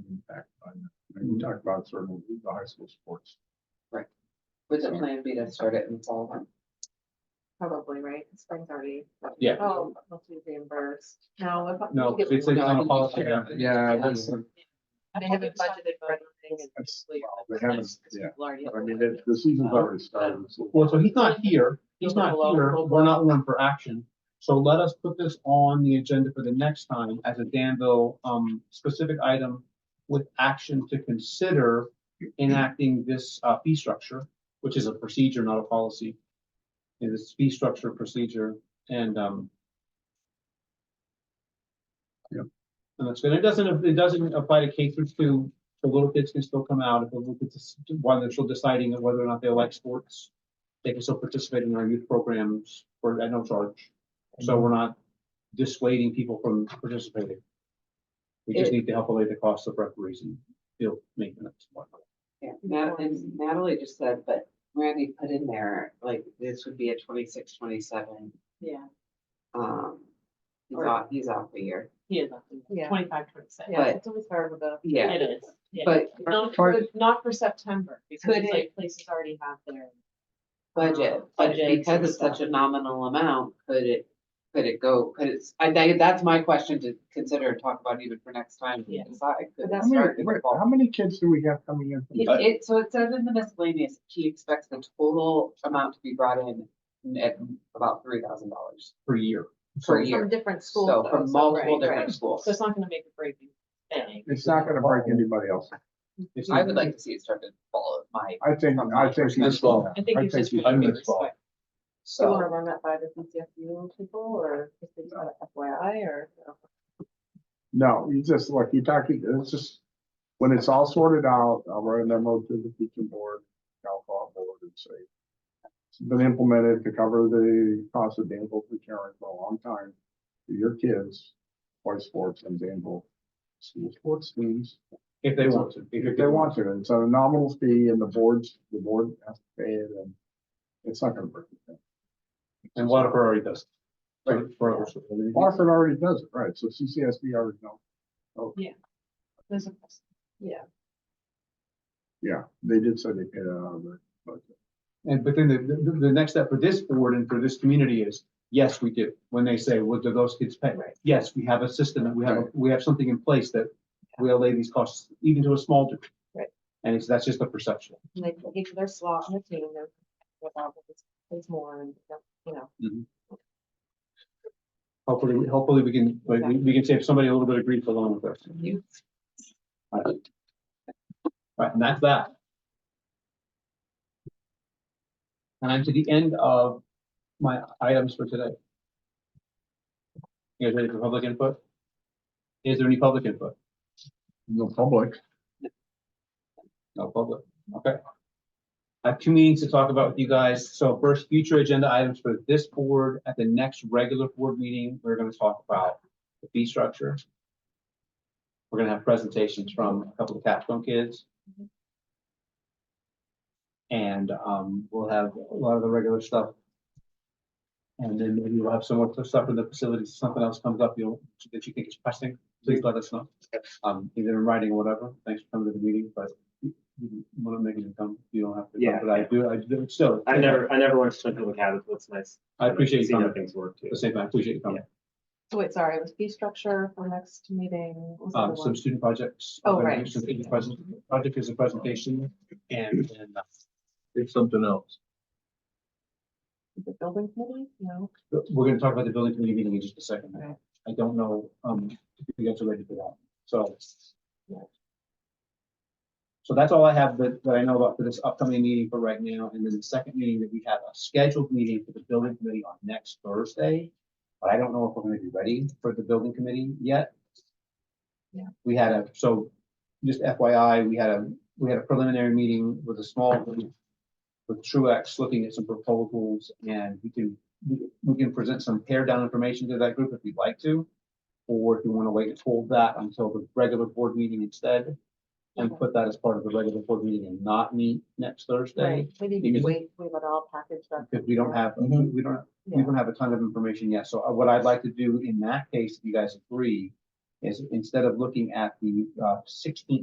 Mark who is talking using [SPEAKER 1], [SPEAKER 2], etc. [SPEAKER 1] impact on that. And we talked about sort of the high school sports.
[SPEAKER 2] Would the plan be to start it in fall? then?
[SPEAKER 3] Probably, right? Spring's already.
[SPEAKER 1] Yeah.
[SPEAKER 3] Oh, must be reimbursed. No. if I-
[SPEAKER 1] No,
[SPEAKER 3] we get-
[SPEAKER 1] it's, it's
[SPEAKER 2] No, I
[SPEAKER 1] on a
[SPEAKER 2] think
[SPEAKER 1] policy,
[SPEAKER 2] we
[SPEAKER 1] yeah,
[SPEAKER 2] should.
[SPEAKER 1] yeah,
[SPEAKER 2] Yeah.
[SPEAKER 1] that's-
[SPEAKER 3] They haven't budgeted for anything. and
[SPEAKER 1] That's-
[SPEAKER 3] leave it.
[SPEAKER 1] they haven't,
[SPEAKER 3] Because
[SPEAKER 1] yeah.
[SPEAKER 3] people already have
[SPEAKER 1] I mean,
[SPEAKER 3] the-
[SPEAKER 1] the, the season's already started. so- Well, so he's not here, he's not here, we're not one for action. So let us put this on the agenda for the next time as a Danville, um, specific item with action to consider enacting this, uh, fee structure, which is a procedure, not a policy. It is fee structure procedure and, um,
[SPEAKER 4] Yep.
[SPEAKER 1] And that's good. It doesn't, it doesn't apply to K through two, the little kids can still come out if the little kids, while they're still deciding whether or not they like sports. They can still participate in our youth programs for, at no charge. So
[SPEAKER 4] Mm-hmm.
[SPEAKER 1] we're not dissuading people from participating. We just
[SPEAKER 2] It-
[SPEAKER 1] need to help allay the cost of referees and field maintenance. and whatnot.
[SPEAKER 2] Yeah, Nat- and Natalie just said, but Randy put in there, like, this would be a 26, 27.
[SPEAKER 5] Yeah,
[SPEAKER 2] um. He's
[SPEAKER 5] Or-
[SPEAKER 2] off, he's off a year,
[SPEAKER 5] he is up
[SPEAKER 3] Yeah.
[SPEAKER 5] to twenty-five, twenty-six.
[SPEAKER 3] Yeah,
[SPEAKER 2] but-
[SPEAKER 3] it's always hard with the.
[SPEAKER 2] yeah,
[SPEAKER 5] It is, yeah.
[SPEAKER 2] but
[SPEAKER 5] Not
[SPEAKER 4] For-
[SPEAKER 5] for, not for September, because
[SPEAKER 2] Could
[SPEAKER 5] it's
[SPEAKER 2] it-
[SPEAKER 5] like places already have their.
[SPEAKER 2] budget,
[SPEAKER 5] Um,
[SPEAKER 2] but
[SPEAKER 5] budgets
[SPEAKER 2] because
[SPEAKER 5] and
[SPEAKER 2] it's such a
[SPEAKER 5] stuff.
[SPEAKER 2] nominal amount, could it? Could it go, could it's, I think that's my question to consider and talk about even for next time. we
[SPEAKER 5] Yeah.
[SPEAKER 2] decide. Could
[SPEAKER 3] But
[SPEAKER 2] it
[SPEAKER 4] How many,
[SPEAKER 2] start in the
[SPEAKER 4] wait,
[SPEAKER 2] fall?
[SPEAKER 4] how many kids do we have coming in? from-
[SPEAKER 2] It, it- so it says in the miscellaneous, he expects the total amount to be brought in at about three thousand dollars
[SPEAKER 1] Per year.
[SPEAKER 2] per
[SPEAKER 1] So-
[SPEAKER 2] year.
[SPEAKER 3] From different schools.
[SPEAKER 2] So
[SPEAKER 3] though,
[SPEAKER 2] from multiple
[SPEAKER 3] right, right.
[SPEAKER 2] different schools.
[SPEAKER 5] So it's not gonna make a breaking thing.
[SPEAKER 4] It's not gonna break anybody else.
[SPEAKER 1] it's
[SPEAKER 2] I
[SPEAKER 1] not-
[SPEAKER 2] would like to see it start in fall of my,
[SPEAKER 4] I think,
[SPEAKER 2] From
[SPEAKER 4] I
[SPEAKER 2] my
[SPEAKER 4] think. you
[SPEAKER 1] This
[SPEAKER 4] should do
[SPEAKER 1] law.
[SPEAKER 4] that.
[SPEAKER 5] I think it's just.
[SPEAKER 4] you
[SPEAKER 1] I
[SPEAKER 4] should
[SPEAKER 1] mean,
[SPEAKER 4] do
[SPEAKER 1] it's fall.
[SPEAKER 3] Do you wanna
[SPEAKER 2] so.
[SPEAKER 3] run that by the CCFU people or if they got a FYI or?
[SPEAKER 4] that. No, you just, like, you talk, it's just, when it's all sorted out, I'll write an memo to the teaching board, alcohol board and say. It's been implemented to cover the cost of Danville for Karen for a long time. for Your kids, play sports and Danville school sports teams.
[SPEAKER 1] If they want to.
[SPEAKER 4] If they want to, and so a nominal fee and the boards, the board has to pay it and it's not gonna break anything.
[SPEAKER 1] And Waterford already does. For- for us.
[SPEAKER 4] Barford already does it, right, so CCSD already knows,
[SPEAKER 5] There's a-
[SPEAKER 4] yeah, they did say they paid it out of their budget.
[SPEAKER 1] And but then the, the, the next step for this board and for this community is, yes, we do. When they say, what do those kids pay?
[SPEAKER 5] Right.
[SPEAKER 1] Yes, we have a system and we have, a- we have something in place that will lay these costs even to a small degree.
[SPEAKER 3] Right.
[SPEAKER 1] And it's, that's just a perception.
[SPEAKER 3] And they can each their slot on the team, they're, without, there's more and, you know.
[SPEAKER 1] Hopefully, we- hopefully we can, like, we we can save somebody a little bit of grief along with us.
[SPEAKER 2] you-
[SPEAKER 1] Right, and that's that. And I'm to the end of my items for today. You guys ready for public input? Is there any public input?
[SPEAKER 4] No public.
[SPEAKER 1] No public, okay. I have two meetings to talk about with you guys. So first, future agenda items for this board. At the next regular board meeting, we're gonna talk about the fee structure. We're gonna have presentations from a couple of Capstone kids. And, um, we'll have a lot of the regular stuff. And then maybe we'll have some more stuff in the facilities. Something else comes up, you know, that you think is pressing, please let us know. Um, either in writing or whatever. Thanks for coming to the meeting, but you want to make it come, you don't have to. come,
[SPEAKER 6] Yeah.
[SPEAKER 1] But I do, I do, still.
[SPEAKER 6] I never, I never went to Central Cabot, so it's nice.
[SPEAKER 1] I appreciate you
[SPEAKER 6] Seeing how
[SPEAKER 1] coming.
[SPEAKER 6] things work too.
[SPEAKER 1] The same, I appreciate you coming.
[SPEAKER 3] So wait, sorry, it was fee structure for next meeting. what was the
[SPEAKER 1] Um,
[SPEAKER 3] other
[SPEAKER 1] some
[SPEAKER 3] one?
[SPEAKER 1] student projects.
[SPEAKER 3] Oh,
[SPEAKER 1] I'm gonna do
[SPEAKER 3] right.
[SPEAKER 1] some student present- Project is a presentation and then uh,
[SPEAKER 7] It's something else.
[SPEAKER 3] Is it building committee? No.
[SPEAKER 1] we're gonna talk about the building committee meeting in just a second.
[SPEAKER 3] Right.
[SPEAKER 1] I don't know, um, if you guys are ready for that, so.
[SPEAKER 3] Yeah.
[SPEAKER 1] So that's all I have that, that I know about for this upcoming meeting for right now. And then the second meeting that we have a scheduled meeting for the building committee on next Thursday. But I don't know if we're gonna be ready for the building committee yet.
[SPEAKER 3] Yeah.
[SPEAKER 1] We had a, so just FYI, we had a, we had a preliminary meeting with a small group. With Truax looking at some proposals and we can, we- we can present some pared down information to that group if you'd like to. Or if you wanna wait and hold that until the regular board meeting instead. And
[SPEAKER 3] Okay.
[SPEAKER 1] put that as part of the regular board meeting and not meet next Thursday.
[SPEAKER 3] Right, maybe
[SPEAKER 1] because-
[SPEAKER 3] wait, we would all package that.
[SPEAKER 1] Because we don't have, we don't, we
[SPEAKER 3] Yeah.
[SPEAKER 1] don't have a ton of information yet, so uh, what I'd like to do in that case, if you guys agree, is instead of looking at the uh, sixteenth